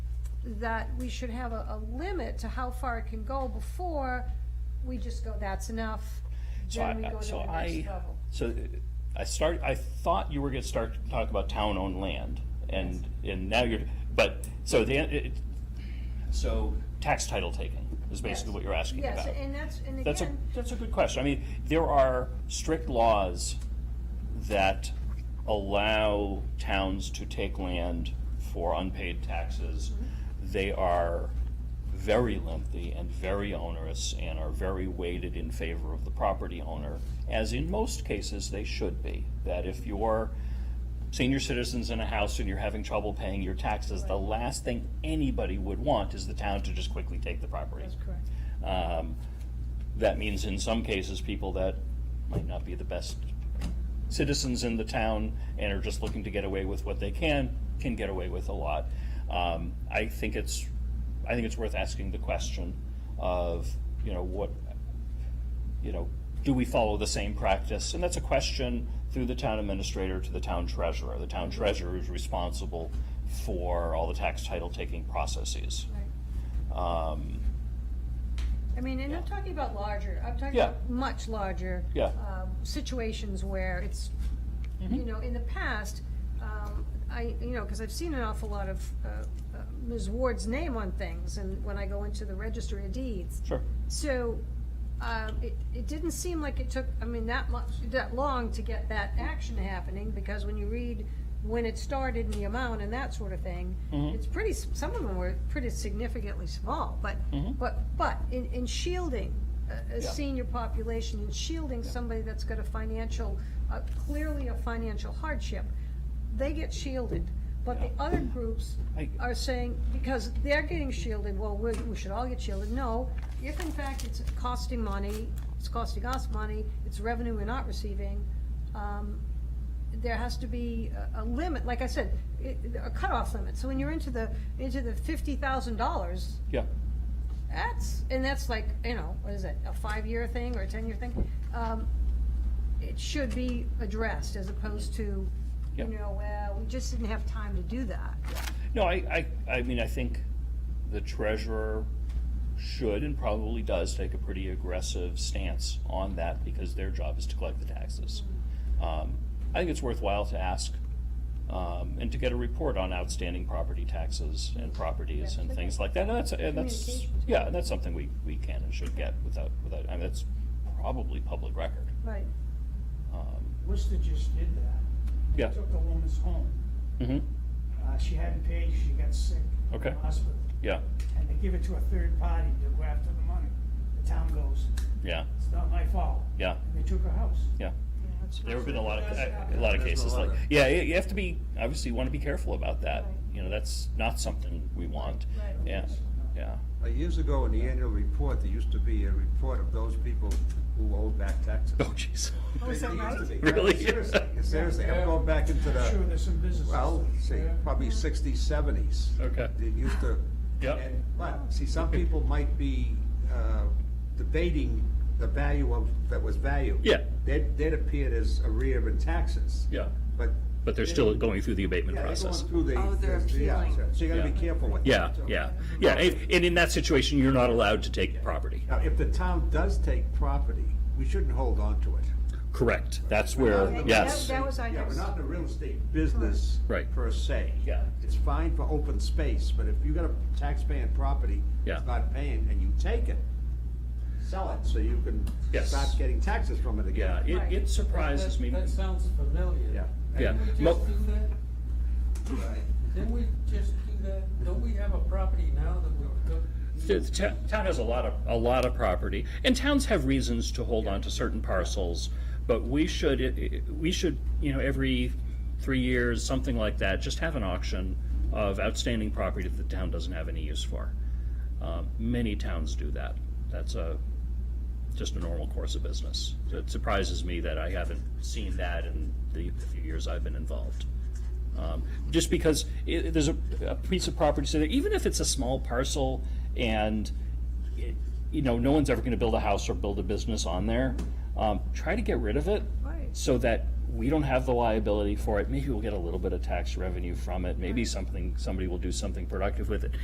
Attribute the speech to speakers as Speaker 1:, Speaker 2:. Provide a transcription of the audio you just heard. Speaker 1: that we should have a, a limit to how far it can go before we just go, that's enough,
Speaker 2: So
Speaker 1: then we
Speaker 2: I,
Speaker 1: go to the
Speaker 2: so
Speaker 1: next
Speaker 2: I,
Speaker 1: level.
Speaker 2: so I start, I thought you were gonna start to talk about town-owned land, and, and now you're, but, so the, it, so tax title taking is basically
Speaker 1: Yes.
Speaker 2: what you're asking about.
Speaker 1: Yes, and that's, and
Speaker 2: That's a,
Speaker 1: again,
Speaker 2: that's a good question. I mean, there are strict laws that allow towns to take land for unpaid taxes.
Speaker 1: Mm-hmm.
Speaker 2: They are very lengthy and very onerous and are very weighted in favor of the property owner, as in most cases they should be. That if you're senior citizens in a house and you're having trouble paying your taxes, the last thing anybody would want is the town to just quickly take the property.
Speaker 1: that's correct.
Speaker 2: Um, That means in some cases, people that might not be the best citizens in the town and are just looking to get away with what they can, can get away with a lot. Um, I think it's, I think it's worth asking the question of, you know, what, you know, do we follow the same practice? And that's a question through the town administrator to the town treasurer. The town treasurer is responsible for all the tax title taking processes.
Speaker 1: Right.
Speaker 2: Um,
Speaker 1: I mean, and I'm talking about larger, I'm talking
Speaker 2: Yeah.
Speaker 1: about much larger.
Speaker 2: Yeah.
Speaker 1: um, Situations where it's, you know, in the past, um, I, you know, because I've seen an awful lot of uh, uh, Ms. Ward's name on things, and when I go into the registry of deeds.
Speaker 2: Sure.
Speaker 1: So, um, it, it didn't seem like it took, I mean, that much, that long to get that action happening, because when you read when it started and the amount and that sort of thing,
Speaker 2: Mhm.
Speaker 1: it's pretty, s- some of them were pretty significantly small, but,
Speaker 2: Mhm.
Speaker 1: but, but in, in shielding a, a
Speaker 2: Yeah.
Speaker 1: senior population, in shielding somebody that's got a financial, uh, clearly a financial hardship, they get shielded, but the
Speaker 2: Yeah.
Speaker 1: other groups
Speaker 2: I-
Speaker 1: are saying, because they're getting shielded, well, we, we should all get shielded. No, if in fact it's costing money, it's costing us money, it's revenue we're not receiving, um, there has to be a, a limit, like I said, it, a cutoff limit. So when you're into the, into the fifty thousand dollars,
Speaker 2: Yeah.
Speaker 1: that's, and that's like, you know, what is it, a five-year thing or a ten-year thing? Um, It should be addressed as opposed to, you
Speaker 2: Yep.
Speaker 1: know, well, we just didn't have time to do that.
Speaker 2: No, I, I, I mean, I think the treasurer should and probably does take a pretty aggressive stance on that because their job is to collect the taxes. Um, I think it's worthwhile to ask, um, and to get a report on outstanding property taxes and properties and things like that. And that's, and that's,
Speaker 1: Communications.
Speaker 2: yeah, and that's something we, we can and should get without, without, I mean, that's probably public record.
Speaker 1: Right.
Speaker 2: Um,
Speaker 3: Worcester just did that. They
Speaker 2: Yeah.
Speaker 3: Took a woman's home.
Speaker 2: mhm,
Speaker 3: Uh, she hadn't paid, she got sick. in
Speaker 2: Okay.
Speaker 3: the Hospital.
Speaker 2: yeah,
Speaker 3: And they give it to a third party to go after the money. The town goes,
Speaker 2: yeah,
Speaker 3: it's not my fault.
Speaker 2: yeah,
Speaker 3: And they took her house.
Speaker 2: yeah.
Speaker 1: Yeah, that's
Speaker 2: There have been a lot of, a
Speaker 3: That's-
Speaker 2: lot of
Speaker 4: that's
Speaker 2: cases
Speaker 4: a lot
Speaker 2: like,
Speaker 4: of-
Speaker 2: yeah, you you have to be, obviously you want to be careful about that.
Speaker 1: Right.
Speaker 2: You know, that's not something we want.
Speaker 1: Right.
Speaker 2: Yeah, yeah,
Speaker 4: Uh, Years ago, in the annual report, there used to be a report of those people who owed back taxes.
Speaker 2: Oh, jeez.
Speaker 4: They-
Speaker 3: is that
Speaker 4: they used to
Speaker 3: right?
Speaker 4: be. Yeah,
Speaker 2: Really?
Speaker 4: Seriously, seriously, I'm going back into
Speaker 3: I'm sure
Speaker 4: the,
Speaker 3: there's some businesses.
Speaker 4: well, see,
Speaker 3: Yeah.
Speaker 4: probably sixties, seventies.
Speaker 2: Okay.
Speaker 4: They used to.
Speaker 2: Yep.
Speaker 4: and- But, see, some people might be uh, debating the value of, that was valued.
Speaker 2: Yeah.
Speaker 4: They'd, they'd appeared as arrear in taxes.
Speaker 2: yeah.
Speaker 4: But.
Speaker 2: But they're still going through the abatement
Speaker 4: Yeah, they're going
Speaker 2: process.
Speaker 4: through the-
Speaker 5: Oh, they're
Speaker 4: the- the- yeah,
Speaker 5: appealing.
Speaker 4: So you gotta be
Speaker 2: Yeah.
Speaker 4: careful with that.
Speaker 2: Yeah,
Speaker 4: too.
Speaker 2: yeah, yeah, and and in that situation, you're not allowed to take property.
Speaker 4: Now, if the town does take property, we shouldn't hold on to it.
Speaker 2: Correct, that's where,
Speaker 1: That-
Speaker 2: yes.
Speaker 1: That was, I
Speaker 4: Yeah, we're
Speaker 1: guess,
Speaker 4: not in the real estate business.
Speaker 2: Right.
Speaker 4: Per se.
Speaker 2: Yeah.
Speaker 4: It's fine for open space, but if you got a taxpaying property.
Speaker 2: Yeah.
Speaker 4: It's not paying, and you take it, sell it, so you can.
Speaker 2: Yes.
Speaker 4: Start getting taxes from it
Speaker 2: Yeah,
Speaker 4: again.
Speaker 2: it, it surprises me.
Speaker 6: That sounds familiar.
Speaker 2: Yeah.
Speaker 6: Didn't we
Speaker 2: Mo-
Speaker 6: just do that?
Speaker 4: Right.
Speaker 6: Didn't we just do that? Don't we have a property now that we took?
Speaker 2: The the to- town has a lot of, a lot of property, and towns have reasons to hold on to certain parcels, but we should, i- i- we should, you know, every three years, something like that, just have an auction of outstanding property that the town doesn't have any use for. Um, Many towns do that. That's a, just a normal course of business. So It surprises me that I haven't seen that in the few years I've been involved. Um, Just because i there's a, a piece of property, so that even if it's a small parcel and, it- you know, no one's ever gonna build a house or build a business on there, um, try to get rid of it.
Speaker 1: Right.
Speaker 2: So that we don't have the liability for it. Maybe we'll get a little bit of tax revenue from it. Maybe something, somebody will do something productive with it.